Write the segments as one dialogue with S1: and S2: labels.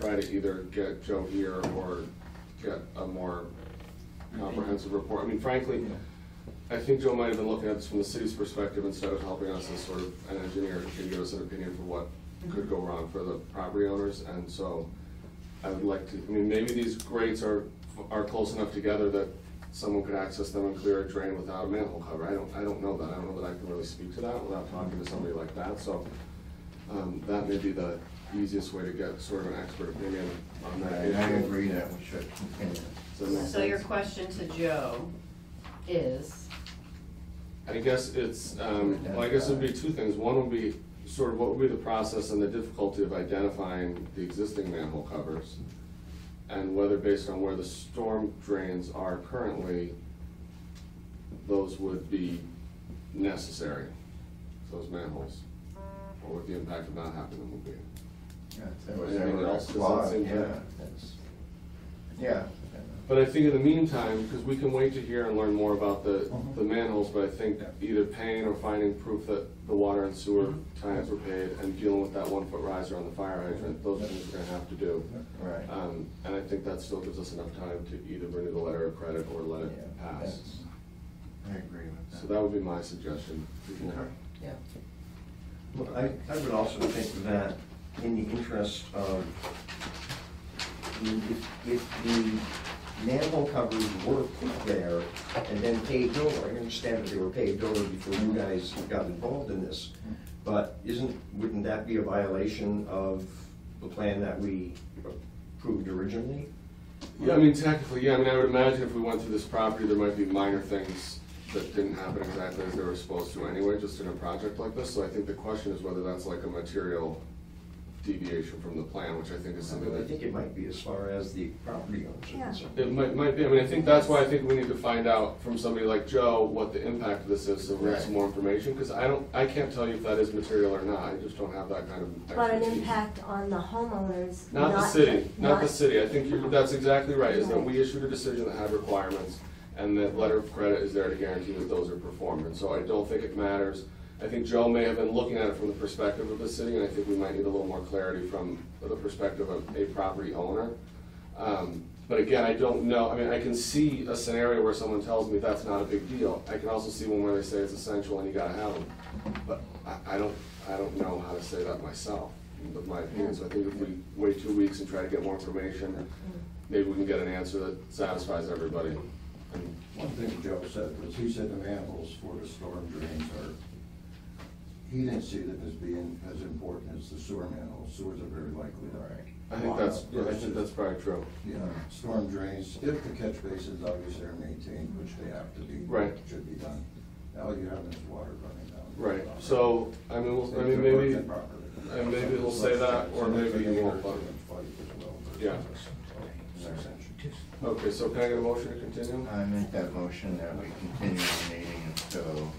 S1: try to either get Joe here or get a more comprehensive report. I mean, frankly, I think Joe might have been looking at this from the city's perspective instead of helping us as sort of an engineer can give us an opinion for what could go wrong for the property owners. And so I would like to, I mean, maybe these grates are, are close enough together that someone could access them and clear a drain without a manhole cover. I don't, I don't know that. I don't know that I can really speak to that without talking to somebody like that. So um, that may be the easiest way to get sort of an expert opinion on
S2: I
S1: that.
S2: I
S1: issue.
S2: agree that we should continue.
S1: Does that make
S3: So your
S1: sense?
S3: question to Joe is,
S1: I guess it's, um, well, I guess it'd be two things. One would be sort of what would be the process and the difficulty of identifying the existing manhole covers? And whether based on where the storm drains are currently, those would be necessary, those manholes? Or what the impact of not having them would be?
S2: Yeah, if There was
S1: Anything
S2: ever a
S1: else? Does that
S2: clause,
S1: seem
S2: yeah,
S1: fair?
S2: that's, yeah.
S1: But I think in the meantime, because we can wait to hear and learn more about the,
S2: Mhm.
S1: the manholes, but I think
S2: Yeah. Mm-hmm.
S1: either paying or finding proof that the water and sewer tie-ins were paid and dealing with that one-foot riser on the fire hydrant, those things we're gonna have to do.
S2: Right.
S1: Um, and I think that still gives us enough time to either renew the letter of credit or let
S2: Yeah,
S1: it pass.
S2: that's- I agree with that.
S1: So that would be my suggestion. We can-
S2: Yeah.
S4: Well, I, I would also think that in the interest of, I mean, if, if the manhole covers were put there and then paved over, I understand that they were paved over before you guys got involved in this, but isn't, wouldn't that be a violation of the plan that we approved originally?
S1: Yeah, I mean, technically, yeah, I mean, I would imagine if we went through this property, there might be minor things that didn't happen exactly as they were supposed to anyway, just in a project like this, so I think the question is whether that's like a material deviation from the plan, which I think is something
S4: I think
S1: that,
S4: it might be as far as the property owners are
S5: Yeah.
S4: concerned.
S1: it might, might be, I mean, I think that's why I think we need to find out from somebody like Joe what the impact of this is, so we have some more information, because I don't, I can't tell you if that is material or not, I just don't have that kind of expertise.
S5: But an impact on the homeowners,
S1: Not the city, not the city, I think you, that's exactly right, is that we issued a decision that had requirements, and that letter of credit is there to guarantee that those are performed, and so I don't think it matters. I think Joe may have been looking at it from the perspective of the city, and I think we might need a little more clarity from the perspective of a property owner. Um, But again, I don't know, I mean, I can see a scenario where someone tells me that's not a big deal, I can also see one where they say it's essential and you gotta have them. But I, I don't, I don't know how to say that myself, with my opinion, so I think if we wait two weeks and try to get more information, maybe we can get an answer that satisfies everybody. And
S2: One thing Joe said was, he said the manholes for the storm drains are, he didn't see them as being as important as the sewer manholes. Sewers are very likely. Right.
S1: I think that's, yeah, I think that's probably true.
S2: you know, storm drains, if the catch basins obviously are maintained, which they have to be.
S1: Right.
S2: Should be done. All you have is water running down.
S1: Right, so, I mean, we'll- I mean, maybe, and maybe he'll say that, or maybe he won't, but- Yeah. okay, so can I get a motion to continue?
S2: I make that motion that we continue the meeting until,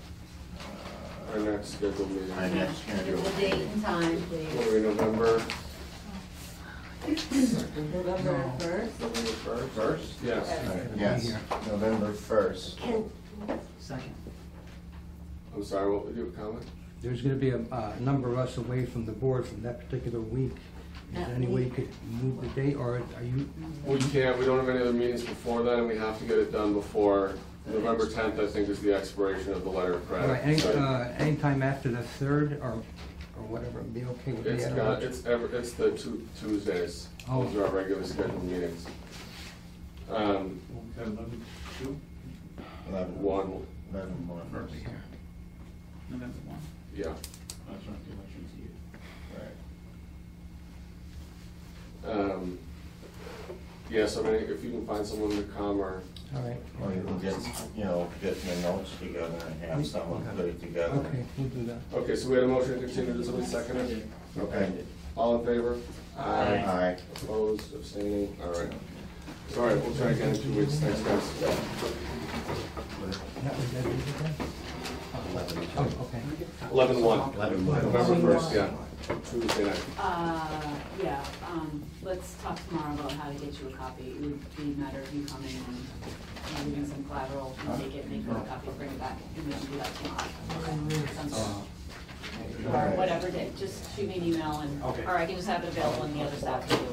S1: Our
S2: uh,
S1: next scheduled meeting,
S2: Our
S1: what
S2: next scheduled
S3: the date and time, please.
S1: are we, November,
S3: November first?
S1: November first?
S2: first?
S1: Yes,
S2: Yes, November first.
S5: Can,
S6: Second.
S1: I'm sorry, what, do you have a comment?
S7: There's gonna be a, uh number of us away from the board from that particular week. Is there
S3: That
S7: any way you
S3: week.
S7: could move the date, or are you,
S1: We can't, we don't have any other meetings before then, and we have to get it done before November tenth, I think, is the expiration of the letter of
S7: all right, any,
S1: credit. So
S7: uh, anytime after the third, or, or whatever, be okay with me?
S1: It's
S7: I don't
S1: got,
S7: know.
S1: it's ever, it's the two Tuesdays,
S7: Oh.
S1: those are our regular scheduled meetings. Um,
S8: Eleven, two,
S2: Eleven
S1: one,
S2: Eleven more first.
S8: November one,
S1: yeah,
S8: that's right, the election's here.
S2: Right.
S1: um, yeah, so I mean, if you can find someone to come or,
S7: All right,
S2: Or
S1: Oh,
S2: you can get, you know, get your notes together and have someone put it together.
S7: okay, we'll do that.
S1: okay, so we had a motion to continue, does somebody second it?
S2: Okay.
S1: All in favor?
S2: All right.
S1: Opposed, abstaining, all right. All right, we'll try again in two weeks, thanks guys.
S7: That was that, did you say? Oh, okay.
S1: Eleven one.
S2: Eleven one.
S1: November first, yeah, Tuesday night.
S3: Uh, yeah, um, let's talk tomorrow about how to get you a copy. It would be a matter of you coming and maybe doing some collateral, you take it, make a copy, bring it back, and we can do that tomorrow. Sounds good. Or whatever day, just shoot me an email and, or I can just have it available on the other side.